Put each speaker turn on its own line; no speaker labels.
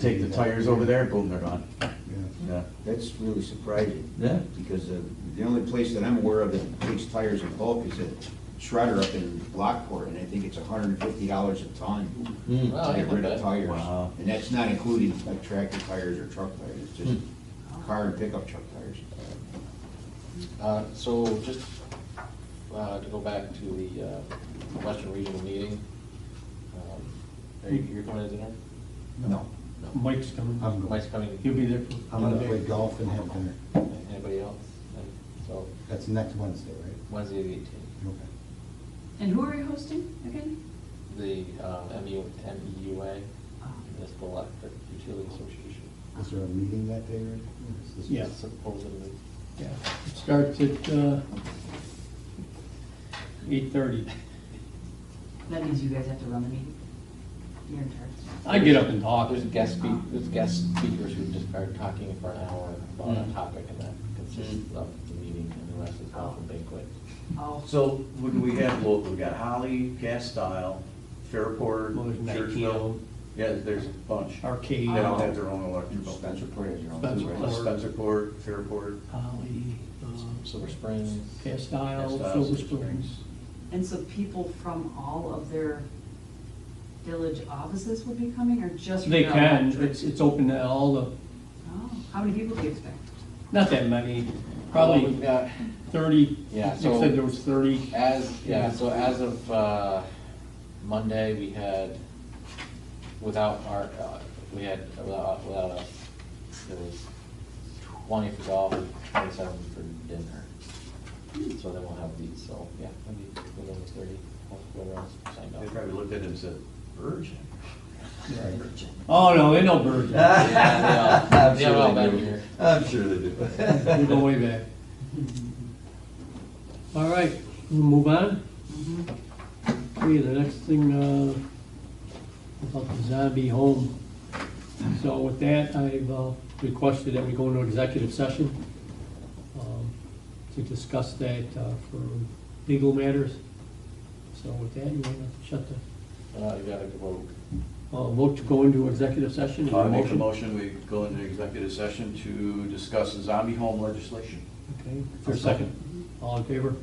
take the tires over there, boom, they're gone.
Yeah.
Yeah,
That's really surprising.
Yeah.
Because uh, the only place that I'm aware of that takes tires in bulk is at Shredder up in Lockport, and I think it's hundred and fifty dollars a ton
Hmm.
to
Wow,
get rid of
okay.
tires.
Wow.
And that's not including like tractor tires or truck tires, it's just car and pickup truck tires.
Uh, So just uh, to go back to the uh, Western Regional meeting, um, are you, you're coming to dinner?
No.
No.
Mike's coming.
Mike's coming.
He'll be there.
I'm gonna play golf and have dinner.
Anybody else? And So
That's next Wednesday, right?
Wednesday the eighteenth,
Okay.
And who are you hosting again?
the um, MU MEUA, Municipal Electric Utility Association,
Is there a meeting that day, Rick? Or is this-
Yeah.
supposedly.
Yeah. Starts at uh, 8:30.
That means you guys have to run the meeting. You're in charge.
I get up and talk.
There's guest speak, there's guest speakers who just are talking for an hour about a
Mm.
topic, and that consists of the meeting, and the rest is all banquet.
Oh,
So what do we have local? We got Holly, Castile, Fairport,
Well, there's
Churchville.
Nikeo.
Yeah, there's a bunch.
Arcade.
They all have their own electrical.
Spencer Port has your own.
Spencer
too, right?
Port.
Spencerport, Fairport,
Holly, uh,
Silver Springs.
Castile,
Castile,
Silver
Silver Springs.
Springs.
and so people from all of their village offices will be coming or just? from
They
their
can,
electric?
it's, it's open to all the,
Oh, how many people do you expect?
not that many,
Uh, we've
probably
got-
30.
Yeah,
They
so-
said there was 30.
As, yeah, so as of uh, Monday, we had, without our, uh, we had, without without us, it was twenty for golf, twenty-seven for dinner. So then we'll have these, so, yeah, maybe within the thirty, whatever else signed
they
up.
probably looked at it and said, virgin.
Right.
Oh, no, they know birds. We
Yeah, they all-
I'm sure
they all
they
been
do.
here.
I'm sure they do.
go way back. All right, we'll move on. Okay, the next thing, uh, about the zombie home. So with that, I've uh, requested that we go into executive session um, to discuss that uh, for legal matters. So with that, you wanna shut the,
Uh, You gotta vote.
uh, vote to go into executive session? Is there
I make a motion, we go into executive session to discuss the zombie home legislation.
Okay, for a second. All in favor?